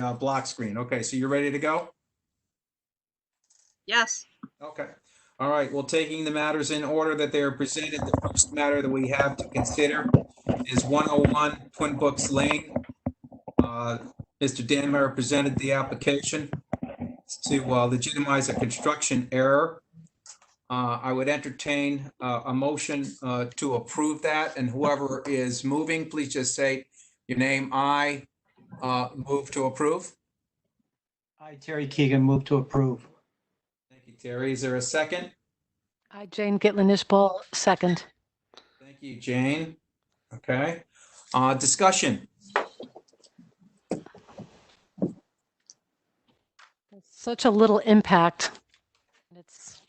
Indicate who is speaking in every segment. Speaker 1: uh, block screen. Okay, so you're ready to go?
Speaker 2: Yes,
Speaker 1: Okay. All right, well, taking the matters in order that they are presented, the first matter that we have to consider is 101 Twin Books Lane. Uh, Mr. Danmeyer presented the application to uh, legitimize a construction error. Uh, I would entertain uh, a motion uh, to approve that, and whoever is moving, please just say your name. I uh, move to approve.
Speaker 3: I, Terry Keegan, move to approve.
Speaker 1: Thank you, Terry. Is there a second?
Speaker 4: I, Jane Gitlin Ishbal, second.
Speaker 1: Thank you, Jane. Okay, uh, discussion.
Speaker 4: Such a little impact. And It's,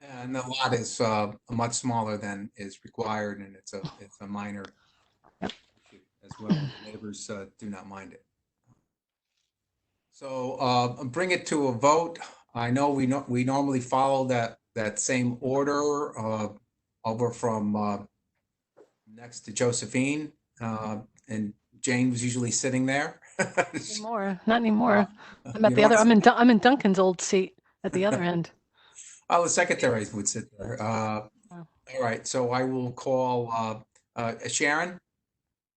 Speaker 1: And the lot is, uh, much smaller than is required and it's a, it's a minor issue as well. Neighbors, uh, do not mind it. So, uh, bring it to a vote. I know we know, we normally follow that, that same order, uh, over from, uh, next to Josephine, uh, and Jane was usually sitting there.
Speaker 4: anymore, not anymore. I'm
Speaker 1: You
Speaker 4: at the
Speaker 1: know,
Speaker 4: other, I'm in, Dun- I'm in Duncan's old seat at the other end.
Speaker 1: Oh, the secretaries would sit there. Uh,
Speaker 4: Oh.
Speaker 1: All right, so I will call uh, uh, Sharon.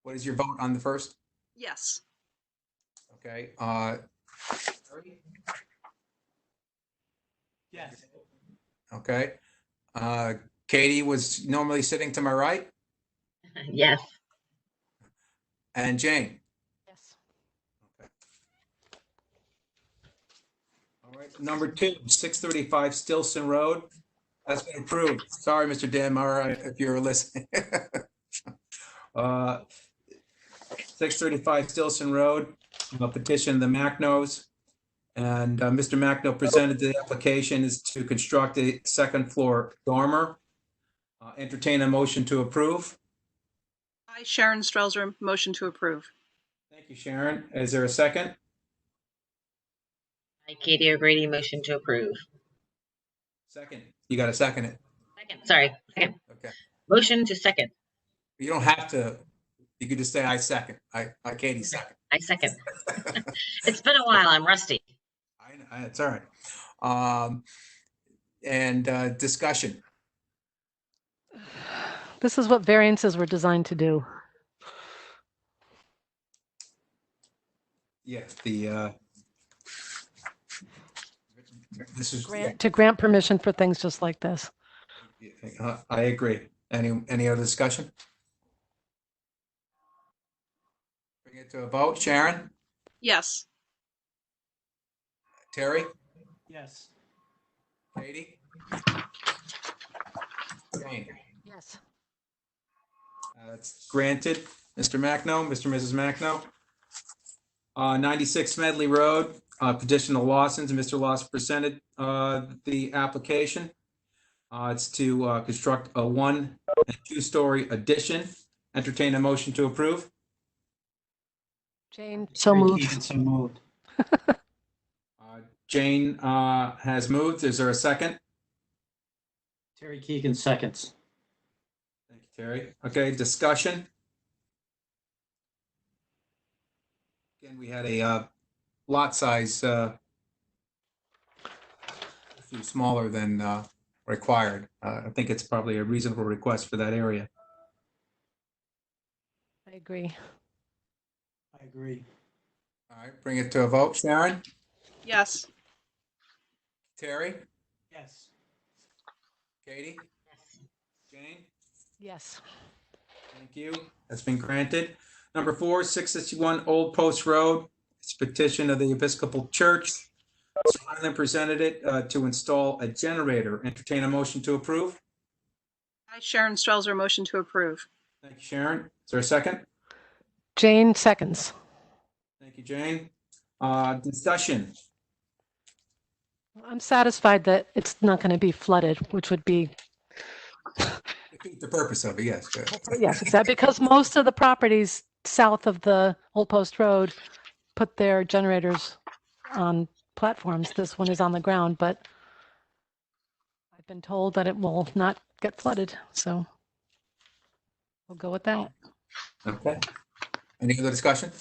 Speaker 1: What is your vote on the first?
Speaker 2: yes,
Speaker 1: Okay. uh, Terry?
Speaker 3: Yes.
Speaker 1: Okay. Uh, Katie was normally sitting to my right
Speaker 5: Yes,
Speaker 1: and Jane.
Speaker 4: Yes.
Speaker 1: All right, number two, 635 Stilson Road. That's been approved. Sorry, Mr. Dan Mara, if you're listening. Uh, 635 Stilson Road, a petition of the Macnos. And uh, Mr. Macno presented the application is to construct a second floor dormer. Uh, Entertain a motion to approve.
Speaker 2: I, Sharon Strelzer, motion to approve.
Speaker 1: Thank you, Sharon. Is there a second?
Speaker 5: I, Katie O'Grady, motion to approve.
Speaker 1: Second. You got to second it.
Speaker 5: Second, sorry, second.
Speaker 1: Okay.
Speaker 5: Motion to second.
Speaker 1: You don't have to, you could just say I second. I, I Katie second.
Speaker 5: I second. It's been a while. I'm rusty.
Speaker 1: I, I- it's all right. Um, and, uh, discussion.
Speaker 4: This is what variances were designed to do.
Speaker 1: Yes, the, uh, this is, yeah,
Speaker 4: Grant, to grant permission for things just like this.
Speaker 1: yeah, uh, I agree. Any, any other discussion? Bring it to a vote. Sharon,
Speaker 2: Yes,
Speaker 1: Terry,
Speaker 3: Yes.
Speaker 1: Katie? Jane,
Speaker 4: Yes.
Speaker 1: uh, it's granted. Mr. Macno, Mr. and Mrs. Macno. Uh, 96 Medley Road, uh, petition of Lawson's. Mr. Lawson presented uh, the application. Uh, It's to uh, construct a one and two-story addition. Entertain a motion to approve.
Speaker 4: Jane, so
Speaker 3: Terry
Speaker 4: moved.
Speaker 3: Keegan, So moved.
Speaker 1: Uh, Jane uh, has moved. Is there a second?
Speaker 3: Terry Keegan, seconds.
Speaker 1: Thank you, Terry. Okay, discussion. Again, we had a uh, lot size uh, a few smaller than uh, required. Uh, I think it's probably a reasonable request for that area.
Speaker 4: I agree.
Speaker 3: I agree.
Speaker 1: All right, bring it to a vote. Sharon?
Speaker 2: yes,
Speaker 1: Terry?
Speaker 3: Yes.
Speaker 1: Katie? Jane?
Speaker 4: Yes.
Speaker 1: Thank you. That's been granted. Number four, six sixty-one Old Post Road. It's a petition of the Episcopal Church. Swanland presented it uh, to install a generator. Entertain a motion to approve.
Speaker 2: I, Sharon Strelzer, motion to approve.
Speaker 1: Thank you, Sharon. Is there a second?
Speaker 4: Jane, seconds.
Speaker 1: Thank you, Jane. Uh, discussion.
Speaker 4: I'm satisfied that it's not going to be flooded, which would be
Speaker 1: The purpose of it, yes.
Speaker 4: Yes, exactly, because most of the properties south of the Old Post Road put their generators on platforms. This one is on the ground, but I've been told that it will not get flooded, so we'll go with that.
Speaker 1: Okay. Any other discussion?